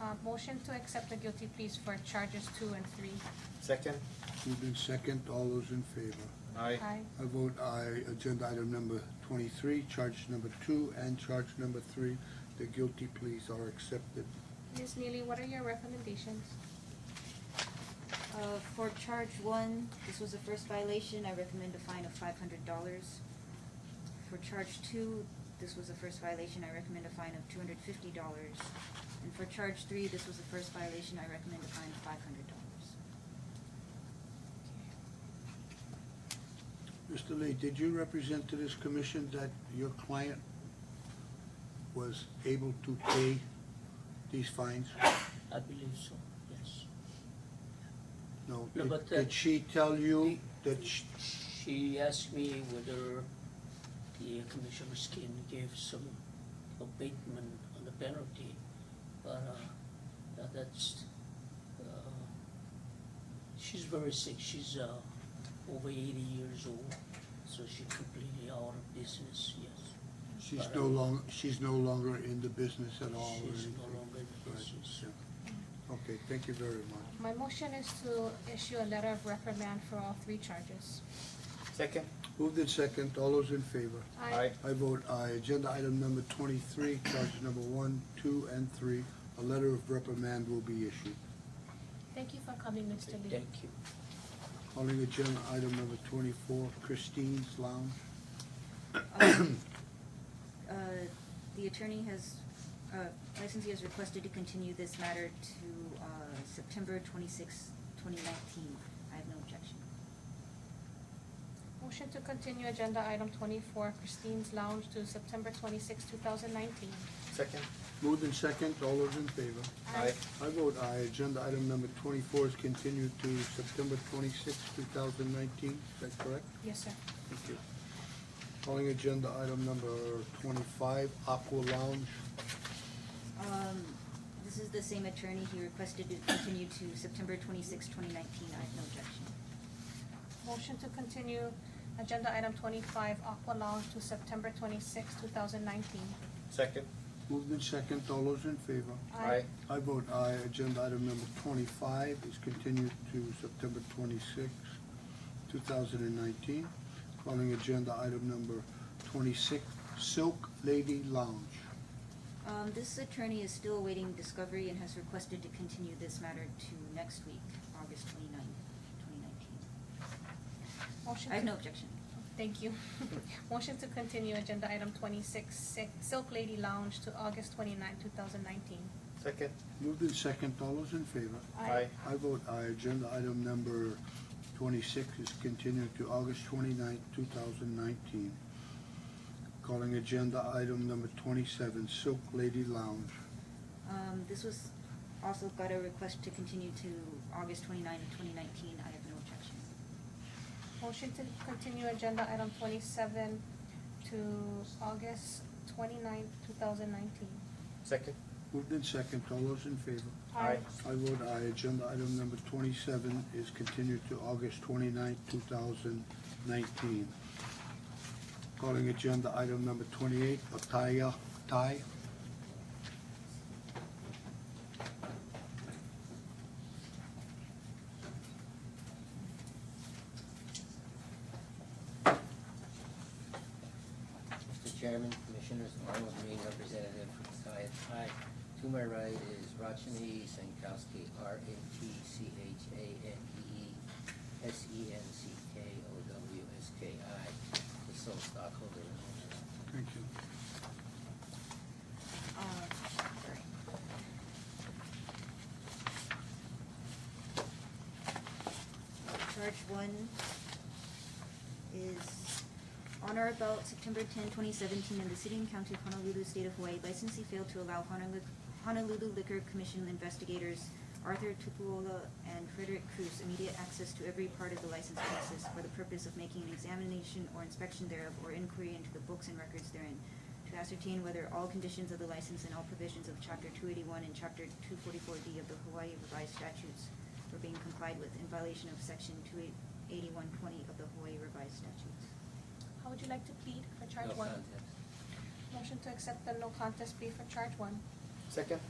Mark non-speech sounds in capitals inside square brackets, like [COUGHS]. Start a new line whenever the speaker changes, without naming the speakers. Uh, motion to accept the guilty pleas for charges two and three.
Second?
Moved in second, all those in favor?
Aye.
I vote aye. Agenda item number twenty-three, charge number two and charge number three, the guilty pleas are accepted.
Ms. Neely, what are your recommendations?
Uh, for charge one, this was the first violation, I recommend a fine of five hundred dollars. For charge two, this was the first violation, I recommend a fine of two hundred fifty dollars. And for charge three, this was the first violation, I recommend a fine of five hundred dollars.
Mr. Lee, did you represent to this commission that your client was able to pay these fines?
I believe so, yes.
No,
No,
did-
but, uh,
did she tell you that sh-
She asked me whether the Commissioner Skin gave some abatement on the penalty, but, uh, uh, that's, uh, she's very sick, she's, uh, over eighty years old, so she completely out of business, yes.
she's no long, she's no longer in the business at all or
She's
anything?
no longer in the
Right,
business.
yeah. Okay, thank you very much.
My motion is to issue a letter of reprimand for all three charges.
Second?
Moved in second, all those in favor? I vote aye. Agenda item number twenty-three, charge number one, two, and three, a letter of reprimand will be issued.
Thank you for coming, Mr. Lee.
Thank you.
Calling agenda item number twenty-four, Christine's Lounge.
Um, [COUGHS] uh, The attorney has, uh, licensee has requested to continue this matter to uh, September twenty-sixth, twenty nineteen. I have no objection.
Motion to continue agenda item twenty-four, Christine's Lounge to September twenty-six, two thousand nineteen.
Second?
Moved in second, all those in favor? I vote aye. Agenda item number twenty-four is continued to September twenty-sixth, two thousand nineteen, is that correct?
Yes, sir.
Thank you. Calling agenda item number twenty-five, Aqua Lounge.
Um, This is the same attorney. He requested to continue to September twenty-sixth, twenty nineteen. I have no objection.
Motion to continue agenda item twenty-five, Aqua Lounge to September twenty-six, two thousand nineteen.
Second?
Moved in second, all those in favor? I vote aye. Agenda item number twenty-five is continued to September twenty-sixth, two thousand and nineteen. Calling agenda item number twenty-six, Silk Lady Lounge.
Um, This attorney is still awaiting discovery and has requested to continue this matter to next week, August twenty-ninth, twenty nineteen.
Motion
I have
to-
no objection.
Thank you. [LAUGHS] Motion to continue agenda item twenty-six, Silk- Silk Lady Lounge to August twenty-nine, two thousand nineteen.
Second?
Moved in second, all those in favor? I vote aye. Agenda item number twenty-six is continued to August twenty-ninth, two thousand nineteen. Calling agenda item number twenty-seven, Silk Lady Lounge.
Um, This was also got a request to continue to August twenty-ninth, twenty nineteen. I have no objection.
Motion to continue agenda item twenty-seven to August twenty-nine, two thousand nineteen.
Second?
Moved in second, all those in favor?
Aye.
I vote aye. Agenda item number twenty-seven is continued to August twenty-ninth, two thousand nineteen. Calling agenda item number twenty-eight, Ataya Thai.
Mr. Chairman, Commissioners, Arnold Green, representative from Sciot High. To my right is Rachni Sankowski, E R-A-T-C-H-A-N-E-E, S-E-N-C-K-O-W-S-K-I, the sole stockholder and owner.
Thank you.
Uh, sorry. Charge one is on or about September 10, 2017, in the city and county of Honolulu, state of Hawaii, licensee failed to allow Honolulu- Honolulu Liquor Commission investigators Arthur Tupuola and Frederick Cruz immediate access to every part of the license premises for the purpose of making an examination or inspection thereof or inquiry into the books and records therein, to ascertain whether all conditions of the license and all provisions of Chapter 281 and Chapter 244D of the Hawaii Revised Statutes were being complied with in violation of Section 28120 of the Hawaii Revised Statutes.
How would you like to plead for charge
No
one?
contest.
Motion to accept the no contest plea for charge one.
Second?